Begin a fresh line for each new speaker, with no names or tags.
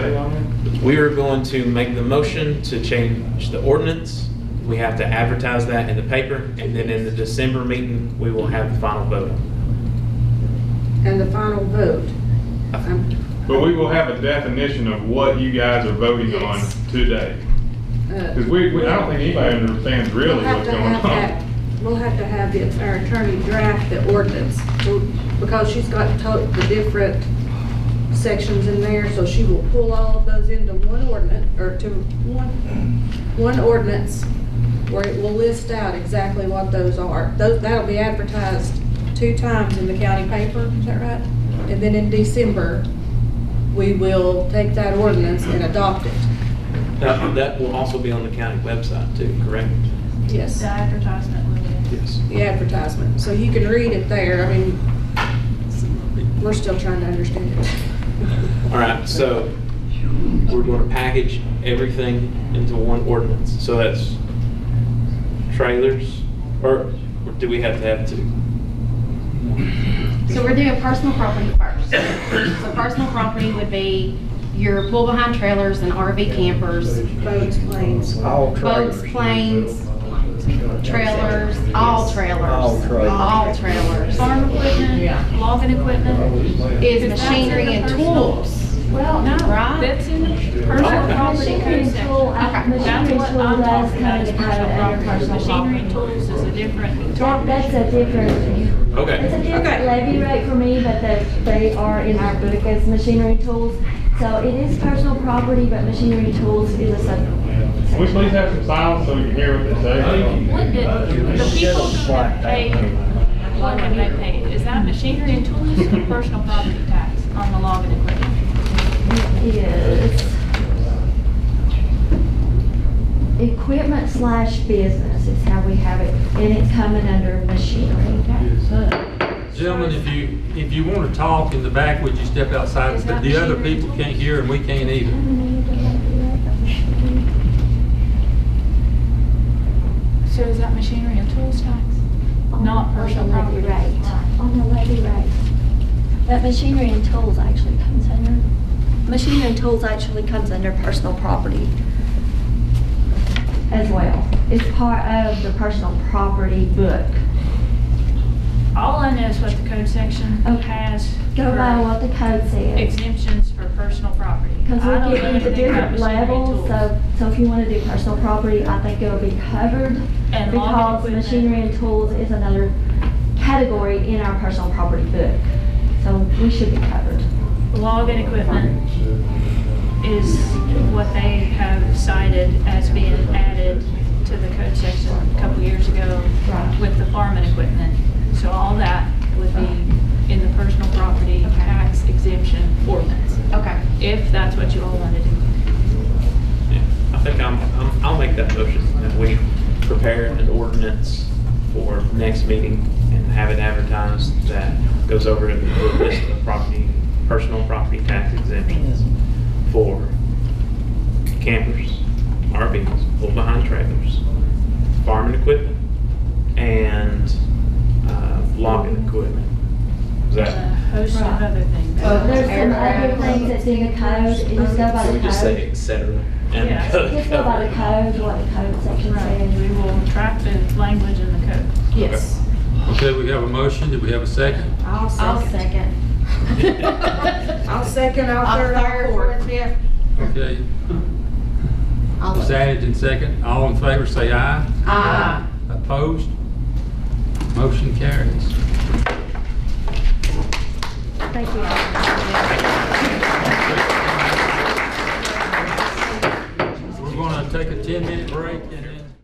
We are going to make the motion to change the ordinance. We have to advertise that in the paper, and then in the December meeting, we will have the final vote.
and the final vote. Um,
But we will have a definition of what you guys are voting on
Yes.
today.
uh,
Because we, we- I don't think anybody understands
we'll
really
have
what's
to
going
have that-
on.
We'll have to have the- our attorney draft the ordinance, We'll- because she's got to- the different sections in there, so she will pull all of those into one ordinance, or to one, one ordinance, where it will list out exactly what those are. Those, that'll be advertised two times in the county paper, is that right? And then in December, we will take that ordinance and adopt it,
That that will also be on the county website too, correct?
yes.
The advertisement will be.
Yes.
the advertisement, so you can read it there. I mean, we're still trying to understand it.
All right, so we're going to package everything into one ordinance. So that's trailers, or or do we have to have two?
So we're doing personal property first. So personal property would be your pull-behind trailers and RV campers,
Boats, planes.
All trailers.
boats, planes, trailers, all trailers.
All trailers.
All trailers.
Farm equipment, logging equipment.
Is machinery and tools.
Well,
No,
Right.
that's in the personal
Okay.
property
machinery
code
and tool,
section.
I-
That's
machinery
what
and tool,
I'm
that's
talking about
kind
is
of kind
personal
of
property.
personal
Machinery and
property.
tools is a different.
That, that's a different, it's a
Okay,
Okay.
different levy rate for me, but the, they are in our book as machinery and tools. So it is personal property, but machinery and tools is a sub.
Can we please have some silence so we can hear what they say?
What did, the people who have paid, what have they paid? Is that machinery and tools or personal property tax on the logging equipment?
Is equipment slash business is how we have it, and it's coming under machinery.
Gentlemen, if you, if you want to talk in the back, would you step outside?
Is that
The other
machinery
people
tools?
can't hear and we can't either.
So is that machinery and tools tax? Not personal property.
Right, on the levy rate. But machinery and tools actually comes under, machinery and tools actually comes under personal property. As well. It's part of the personal property book.
All I know is what the code section
Okay.
has
Go by
for
what the code says.
exemptions for personal property.
Because
I don't know
we're getting into
anything about
different
machinery and
levels,
tools.
so, so if you want to do personal property, I think it'll be covered.
And logging
Because
equipment.
machinery and tools is another category in our personal property book. So we should be covered.
Logging equipment is what they have cited as being added to the code section a couple years ago
Right.
with the farming equipment. So all that would be in the personal property
Okay.
tax exemption ordinance,
Okay.
if that's what you all want to do.
Yeah, I think I'm, I'm- I'll make that motion that we prepare an ordinance for next meeting and have it advertised that goes over to the list of property, personal property tax exemptions for campers, RVs, pull-behind trailers, farming equipment, and uh, logging equipment. Is
A
that?
host of
Right.
other things.
Well,
There's some other things that's in the code, you just go by
Can
the
we just say
code.
et cetera? and
Yeah.
Just go by the code, what the code section
Right, we
says.
will track the language in the code.
Yes.
Okay, we have a motion. Do we have a second?
I'll
I'll
second.
second.
I'll second, I'll
I'll
third,
third,
I'll
fourth,
fourth.
fifth.
Okay.
All of
It's
it.
added in second. All in favor, say aye.
Uh,
Aye.
Opposed? Motion carries.
Thank you.
We're going to take a 10-minute break and